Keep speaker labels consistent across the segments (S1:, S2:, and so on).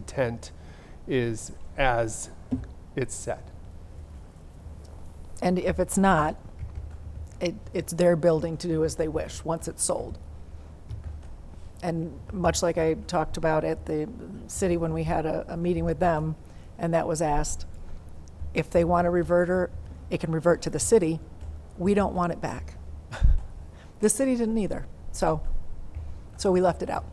S1: intent is as it's said.
S2: And if it's not, it, it's their building to do as they wish, once it's sold. And much like I talked about at the city when we had a, a meeting with them, and that was asked, if they want a reverter, it can revert to the city. We don't want it back. The city didn't either, so, so we left it out.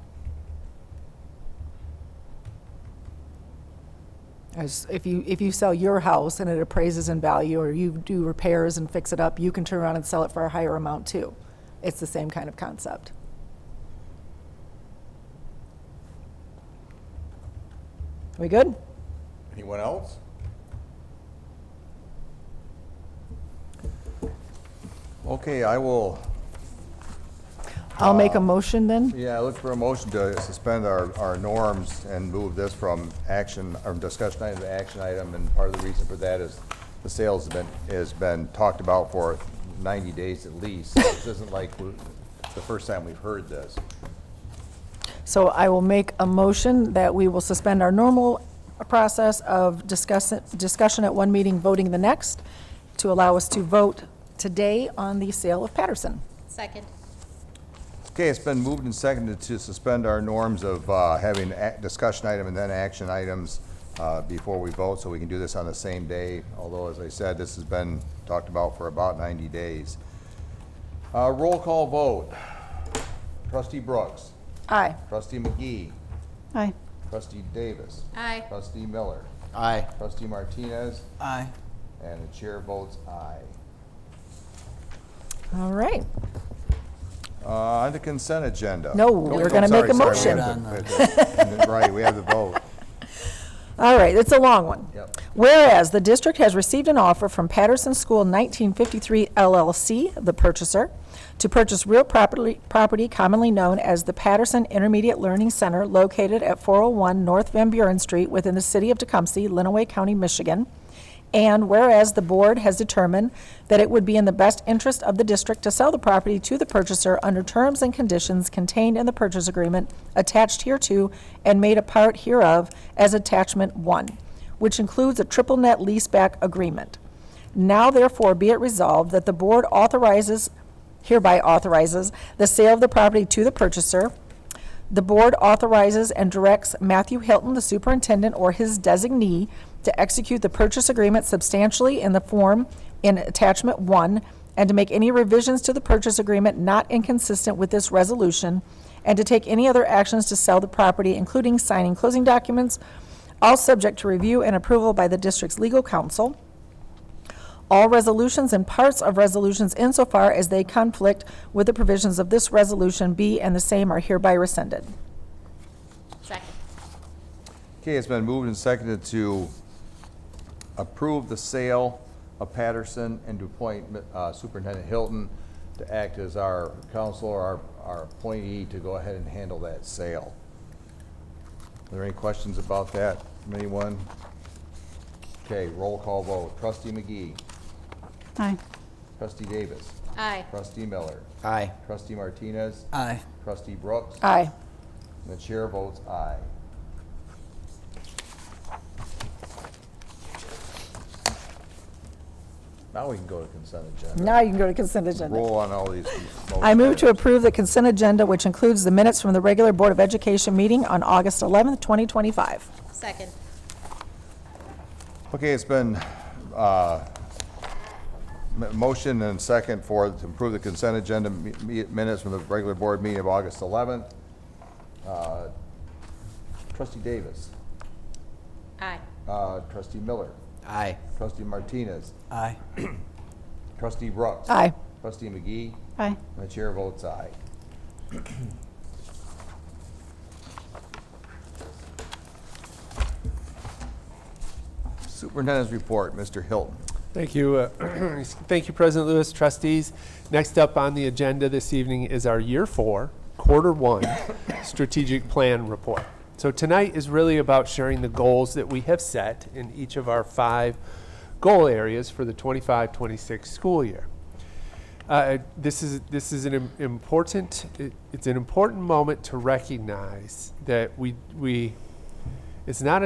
S2: As if you, if you sell your house and it appraises in value, or you do repairs and fix it up, you can turn around and sell it for a higher amount too. It's the same kind of concept. We good?
S3: Anyone else? Okay, I will,
S2: I'll make a motion then.
S3: yeah, look for a motion to suspend our, our norms and move this from action, or discussion item to action item, and part of the reason for that is the sales has been, has been talked about for ninety days at least. This isn't like we- the first time we've heard this.
S2: So I will make a motion that we will suspend our normal process of discuss, discussion at one meeting, voting the next, to allow us to vote today on the sale of Patterson.
S4: Second.
S3: Okay, it's been moved and seconded to suspend our norms of uh, having a- discussion item and then action items uh, before we vote, so we can do this on the same day, although, as I said, this has been talked about for about 90 days. Uh, Roll call vote. Trustee Brooks.
S2: Aye.
S3: Trustee McGee.
S2: Aye.
S3: Trustee Davis.
S4: Aye.
S3: Trustee Miller.
S5: Aye.
S3: Trustee Martinez.
S5: Aye.
S3: And the chair votes aye.
S2: All right.
S3: Uh, On the consent agenda.
S2: No, we're
S3: Oh,
S2: gonna
S3: sorry,
S2: make a
S3: sorry,
S2: motion.
S3: we have to- Right, we have the vote.
S2: All right, it's a long one.
S3: Yep.
S2: Whereas the district has received an offer from Patterson School 1953 LLC, the purchaser, to purchase real property, property commonly known as the Patterson Intermediate Learning Center located at 401 North Van Buren Street within the city of Tecumseh, Lenawee County, Michigan. And whereas the board has determined that it would be in the best interest of the district to sell the property to the purchaser under terms and conditions contained in the purchase agreement attached hereto and made a part hereof as attachment one, which includes a triple net leaseback agreement. Now therefore be it resolved that the board authorizes, hereby authorizes, the sale of the property to the purchaser. The board authorizes and directs Matthew Hilton, the superintendent, or his designee, to execute the purchase agreement substantially in the form in attachment one, and to make any revisions to the purchase agreement not inconsistent with this resolution, and to take any other actions to sell the property, including signing closing documents, all subject to review and approval by the district's legal counsel. All resolutions and parts of resolutions insofar as they conflict with the provisions of this resolution be and the same are hereby rescinded.
S4: Second.
S3: Okay, it's been moved and seconded to approve the sale of Patterson and to appoint uh, Superintendent Hilton to act as our counsel or our, our appointee to go ahead and handle that sale. Are there any questions about that from anyone? Okay, roll call vote. Trustee McGee.
S6: Aye.
S3: Trustee Davis.
S4: Aye.
S3: Trustee Miller.
S5: Aye.
S3: Trustee Martinez.
S5: Aye.
S3: Trustee Brooks.
S2: Aye.
S3: And the chair votes aye. Now we can go to consent agenda.
S2: Now you can go to consent agenda.
S3: Roll on all these
S2: I move to
S3: motions.
S2: approve the consent agenda, which includes the minutes from the regular Board of Education meeting on August 11th, 2025.
S4: Second.
S3: Okay, it's been, uh, m- motion and second for, to approve the consent agenda mi- mi- minutes from the regular board meeting of August 11th. Uh, Trustee Davis,
S4: Aye.
S3: uh, trustee Miller,
S5: Aye.
S3: trustee Martinez,
S5: Aye.
S3: trustee Brooks.
S2: Aye.
S3: Trustee McGee,
S6: Aye.
S3: and the chair votes aye. Superintendent's report, Mr. Hilton.
S1: Thank you, uh, thank you, President Lewis, trustees. Next up on the agenda this evening is our Year Four, Quarter One Strategic Plan Report. So tonight is really about sharing the goals that we have set in each of our five goal areas for the 25-26 school year. Uh, this is this is an im- important. It, it's an important moment to recognize that we we It's not